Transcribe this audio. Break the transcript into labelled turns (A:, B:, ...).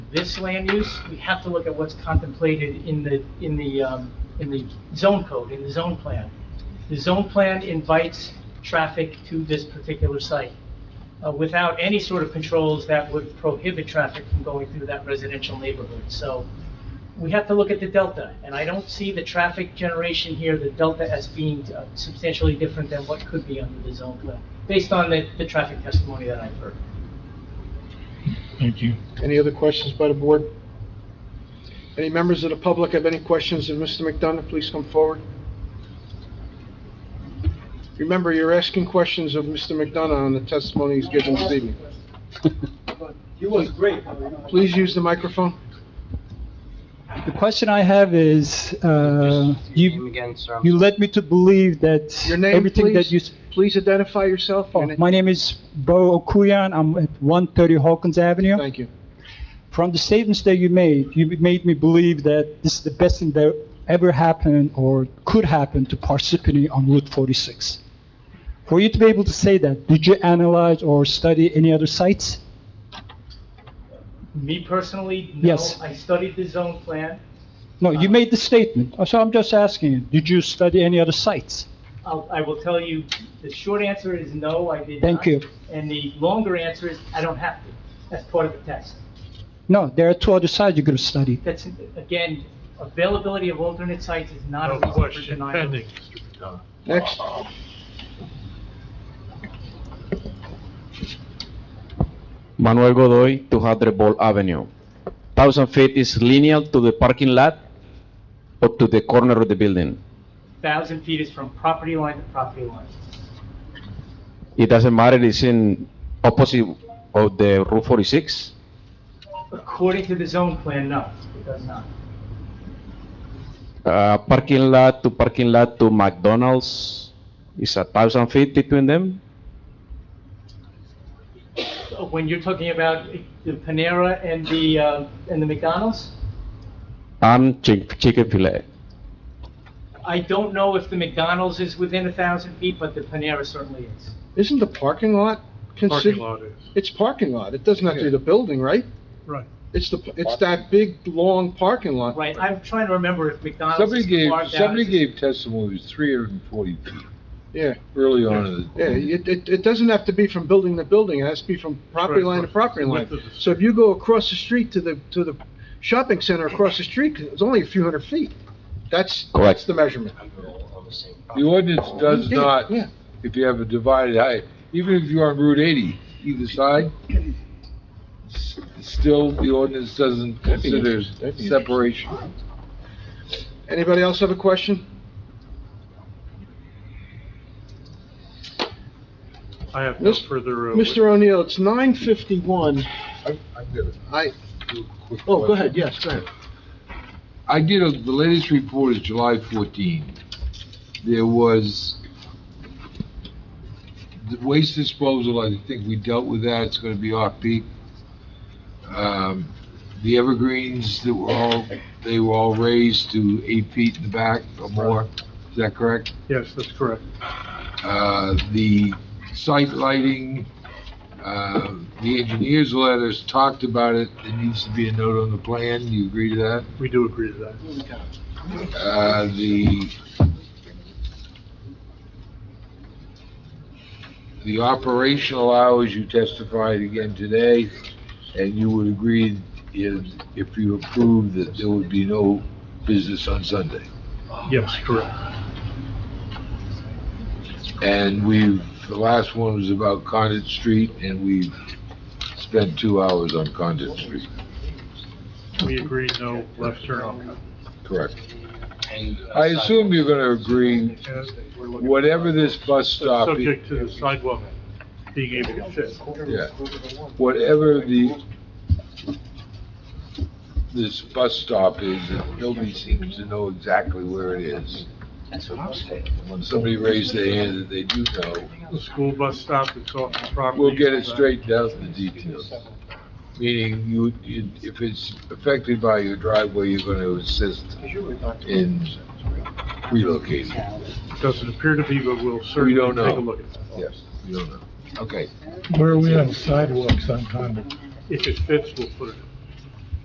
A: this land use, we have to look at what's contemplated in the, in the, um, in the zone code, in the zone plan. The zone plan invites traffic to this particular site uh, without any sort of controls that would prohibit traffic from going through that residential neighborhood. So we have to look at the delta, and I don't see the traffic generation here, the delta as being uh, substantially different than what could be under the zone plan, based on the, the traffic testimony that I've heard.
B: Thank you.
C: Any other questions by the board? Any members of the public have any questions of Mr. McDonough? Please come forward. Remember, you're asking questions of Mr. McDonough on the testimony he's given this evening.
D: He was great.
C: Please use the microphone.
E: The question I have is, uh,
F: Just your name
E: you,
F: again, sir. I'm
E: you
F: sorry.
E: led me to believe that
C: Your name,
E: everything that you...
C: please?
E: s-
C: Please identify yourself.
E: Oh, My name is Bo Okuyan, I'm at 130 Hawkins Avenue.
C: Thank you.
E: From the statements that you made, you made me believe that this is the best thing that ever happened or could happen to Parsippany on Route 46. For you to be able to say that, did you analyze or study any other sites?
A: Me personally, no.
E: Yes.
A: I studied the zone plan.
E: No,
C: Uh-huh.
E: you made the statement, so I'm just asking, you, did you study any other sites?
A: I'll, I will tell you, the short answer is no, I did not.
E: Thank you.
A: And the longer answer is, I don't have to. That's part of the test.
E: No, there are two other sites you could have studied.
A: That's, again, availability of alternate sites is not a
B: No
A: reason for
B: question
A: denial.
B: pending, Mr. McDonough.
C: Next.
G: Manuel Godoy, 200 Ball Avenue. 1,000 feet is lineal to the parking lot or to the corner of the building.
A: Thousand feet is from property line to property line.
G: It doesn't matter, it's in opposite of the Route 46.
A: According to the zone plan, no, it does not.
G: Uh, Parking lot to parking lot to McDonald's is a 1,000 feet between them.
A: When you're talking about the Panera and the, uh, and the McDonald's,
G: And Chick- Chick-fil-A.
A: I don't know if the McDonald's is within a thousand feet, but the Panera certainly is.
C: Isn't the parking lot
B: Parking
C: considered?
B: lot is,
C: It's parking lot. It does not do the building, right?
B: right.
C: It's the, it's that big, long parking lot.
A: Right, I'm trying to remember if McDonald's
H: Somebody
A: is
H: gave,
A: carved out.
H: somebody gave testimony, it was three hundred and forty feet,
C: Yeah.
H: early on in the.
C: Yeah,
B: Mm-hmm.
C: it, it, it doesn't have to be from building to building, it has to be from property line to property line. So if you go across the street to the, to the shopping center across the street, it's only a few hundred feet. That's, that's
G: Correct.
C: the measurement.
F: We're all on the same
H: The ordinance does
C: Yeah,
H: not,
C: Yeah,
H: if you have a divided height, even if you're on Route eighty, either side, s- still, the ordinance doesn't
C: That'd be
H: consider
C: interesting. That'd be
H: separation.
C: anybody else have a question?
B: I have no
C: Mis-
B: further. uh,
C: Mr. O'Neill, it's nine fifty-one,
H: I, I did a
C: I,
H: quick
C: oh, go
H: question.
C: ahead, yes, go ahead.
H: I did, a- the latest report is July 14. There was the waste disposal, I think we dealt with that, it's gonna be off-peak. Um, The evergreens that were all, they were all raised to eight feet in the back or more, is that correct?
B: Yes, that's correct.
H: Uh, The site lighting, uh, the engineer's letters talked about it, there needs to be a note on the plan, you agree to that?
B: We do agree to that.
H: Uh, the, the operational hours you testified again today, and you would agree if, if you approved that there would be no business on Sunday.
B: Yes, correct.
H: And we've, the last one was about Condit Street, and we spent two hours on Condit Street.
B: We agreed no left turn.
H: Correct.
F: And, uh,
H: I assume you're gonna agree, whatever this bus stop. is-
B: Subject to the sidewalk being able to fit.
H: Yeah, whatever the, this bus stop is, that nobody seems to know exactly where it is.
F: That's what I'm saying.
H: When somebody raised their hand that they do know,
B: The school bus stop is off the property.
H: we'll get it straightened out, the details. Meaning you, you, if it's affected by your driveway, you're gonna assist in relocating.
B: Doesn't appear to be, but we'll certainly
H: We don't
B: take a
H: know.
B: look at that.
H: Yes, you don't know. Okay.
B: If it fits, we'll put it in.